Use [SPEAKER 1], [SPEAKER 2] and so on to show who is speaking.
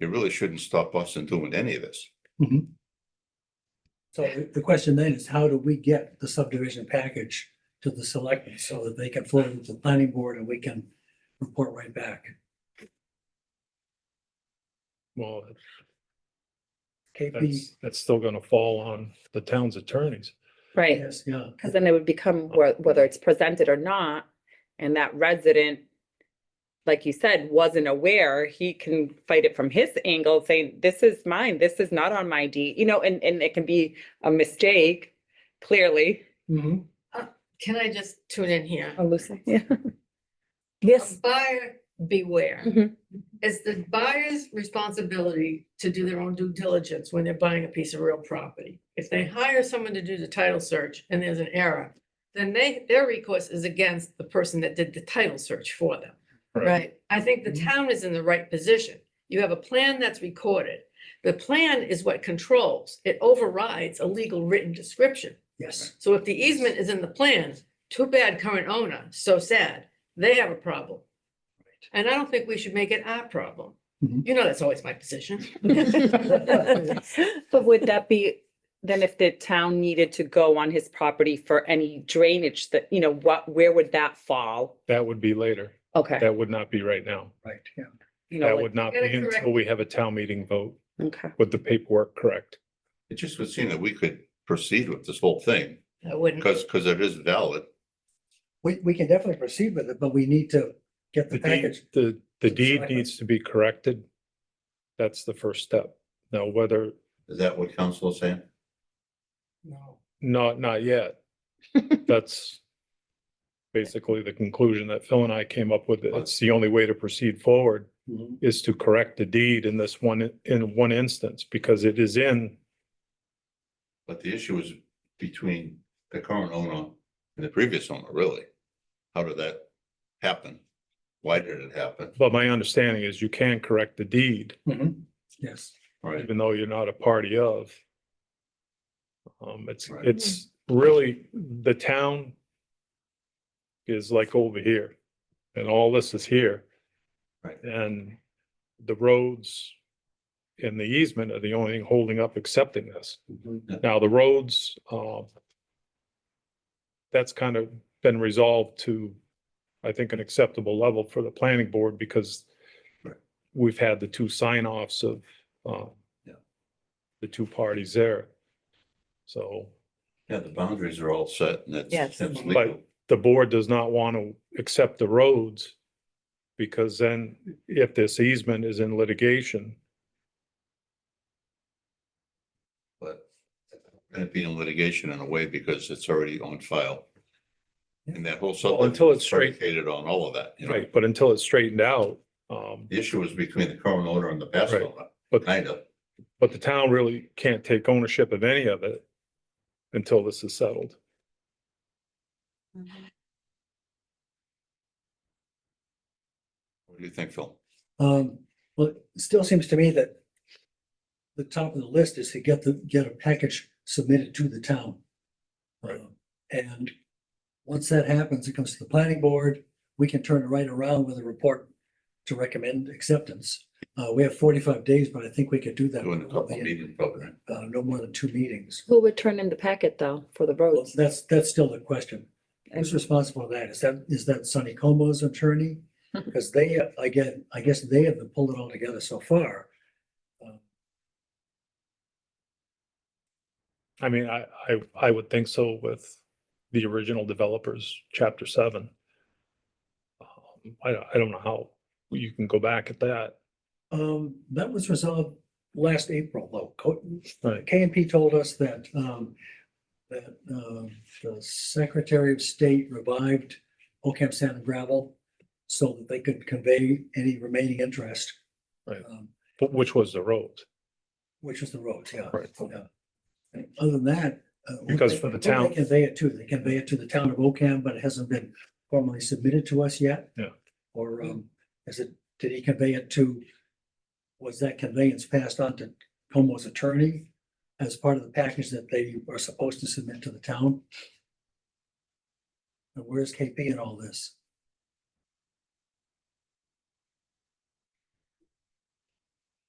[SPEAKER 1] it really shouldn't stop us from doing any of this.
[SPEAKER 2] So the- the question then is, how do we get the subdivision package to the selectmen so that they can float it to the planning board and we can report right back?
[SPEAKER 3] Well,
[SPEAKER 2] KP,
[SPEAKER 3] that's, that's still gonna fall on the town's attorneys.
[SPEAKER 4] Right,
[SPEAKER 2] yes, yeah.
[SPEAKER 4] because then it would become
[SPEAKER 3] Oh.
[SPEAKER 4] whe- whether it's presented or not, and that resident, like you said, wasn't aware, he can fight it from his angle, saying, this is mine, this is not on my deed, you know, and, and it can be a mistake, clearly.
[SPEAKER 2] Mhm.
[SPEAKER 5] Can I just tune in here?
[SPEAKER 4] Oh, Lucy, yeah. Yes.
[SPEAKER 5] Buyer beware.
[SPEAKER 4] Mhm.
[SPEAKER 5] It's the buyer's responsibility to do their own due diligence when they're buying a piece of real property. If they hire someone to do the title search and there's an error, then they, their recourse is against the person that did the title search for them.
[SPEAKER 3] Right.
[SPEAKER 5] Right? I think the
[SPEAKER 2] Mhm.
[SPEAKER 4] Mm-hmm.
[SPEAKER 5] town is in the right position. You have a plan that's recorded. The plan is what controls. It overrides a legal written description.
[SPEAKER 2] Yes,
[SPEAKER 5] So if the easement is in the plan, too bad current owner, so sad, they have a problem. And I don't think we should make it our problem.
[SPEAKER 2] Mhm.
[SPEAKER 5] You know, that's always my position.
[SPEAKER 4] But would that be, then if the town needed to go on his property for any drainage that, you know, what, where would that fall?
[SPEAKER 3] That would be later.
[SPEAKER 4] Okay.
[SPEAKER 3] That would not be right now.
[SPEAKER 2] right, yeah.
[SPEAKER 4] you know,
[SPEAKER 3] That
[SPEAKER 4] like-
[SPEAKER 3] would not
[SPEAKER 5] Get
[SPEAKER 3] be
[SPEAKER 5] it correct.
[SPEAKER 3] until we have a town meeting vote
[SPEAKER 4] Okay.
[SPEAKER 3] with the paperwork correct.
[SPEAKER 1] It just would seem that we could proceed with this whole thing,
[SPEAKER 5] I wouldn't.
[SPEAKER 1] because, because it is valid.
[SPEAKER 2] We, we can definitely proceed with it, but we need to get
[SPEAKER 3] The
[SPEAKER 2] the
[SPEAKER 3] deed,
[SPEAKER 2] package.
[SPEAKER 3] the, the
[SPEAKER 2] So
[SPEAKER 3] deed
[SPEAKER 2] I-
[SPEAKER 3] needs to be corrected. That's the first step. Now, whether,
[SPEAKER 1] Is that what council is saying?
[SPEAKER 5] No.
[SPEAKER 3] not, not yet. That's basically the conclusion that Phil and I came up with. It's the only way to proceed forward.
[SPEAKER 2] Mhm.
[SPEAKER 3] is to correct the deed in this one, in one instance, because it is in,
[SPEAKER 1] But the issue is between the current owner and the previous owner, really. How did that happen? Why did it happen?
[SPEAKER 3] but my understanding is you can correct the deed,
[SPEAKER 2] Mhm. Yes.
[SPEAKER 1] All right,
[SPEAKER 3] even though you're not a party of. Um, it's,
[SPEAKER 1] Right.
[SPEAKER 3] it's really, the town is like over here, and all this is here.
[SPEAKER 1] Right.
[SPEAKER 3] And the roads and the easement are the only thing holding up accepting this.
[SPEAKER 1] Mm-hmm.
[SPEAKER 3] Now, the roads, um, that's kind of been resolved to, I think, an acceptable level for the planning board because
[SPEAKER 1] Right.
[SPEAKER 3] we've had the two sign offs of, um,
[SPEAKER 1] Yeah.
[SPEAKER 3] the two parties there. So
[SPEAKER 1] yeah, the boundaries are all set and it's,
[SPEAKER 4] Yes.
[SPEAKER 1] it's
[SPEAKER 3] But-
[SPEAKER 1] legal.
[SPEAKER 3] the board does not want to accept the roads because then if this easement is in litigation,
[SPEAKER 1] but it'd be in litigation in a way because it's already on file. And that whole
[SPEAKER 3] Well,
[SPEAKER 1] subject
[SPEAKER 3] until it's straight,
[SPEAKER 1] predicated on all of that, you know?
[SPEAKER 3] right, but until it's straightened out, um,
[SPEAKER 1] The issue is between the current owner and the past
[SPEAKER 3] Right.
[SPEAKER 1] owner,
[SPEAKER 3] but
[SPEAKER 1] kind of.
[SPEAKER 3] But the town really can't take ownership of any of it until this is settled.
[SPEAKER 1] What do you think, Phil?
[SPEAKER 2] Um, well, it still seems to me that the top of the list is to get the, get a package submitted to the town.
[SPEAKER 3] Right.
[SPEAKER 2] Um, And once that happens, it comes to the planning board, we can turn it right around with a report to recommend acceptance. Uh, we have forty-five days, but I think we could do that.
[SPEAKER 1] Doing a couple meeting program.
[SPEAKER 2] Uh, no more than two meetings.
[SPEAKER 4] Who would turn in the packet though for the
[SPEAKER 2] Well,
[SPEAKER 4] roads?
[SPEAKER 2] That's, that's still the question.
[SPEAKER 4] And-
[SPEAKER 2] Who's responsible for that? Is that, is that Sonny Como's attorney? Because they, again, I guess they have pulled it all together so far.
[SPEAKER 3] I mean, I, I, I would think so with the original developers, chapter seven. Um, I, I don't know how you can go back at that.
[SPEAKER 2] Um, that was resolved last April, though. Co- uh,
[SPEAKER 3] Right.
[SPEAKER 2] K and P told us that, um, that, um, the Secretary of State revived Ocam Sand and Gravel so that they could convey any remaining interest.
[SPEAKER 3] Right.
[SPEAKER 2] Um,
[SPEAKER 3] But which was the road,
[SPEAKER 2] Which is the road, yeah.
[SPEAKER 3] Right.
[SPEAKER 2] yeah. uh, And Other than that. uh, what
[SPEAKER 3] Because
[SPEAKER 2] they-
[SPEAKER 3] for the
[SPEAKER 2] what they
[SPEAKER 3] town-
[SPEAKER 2] Convey it to, they convey it to the town of Ocam, but it hasn't been formally submitted to us yet.
[SPEAKER 3] Yeah.
[SPEAKER 2] Or, um, is it, did he convey it to, was that conveyance passed on to Como's attorney as part of the package that they are supposed to submit to the town? And where's KP in all this?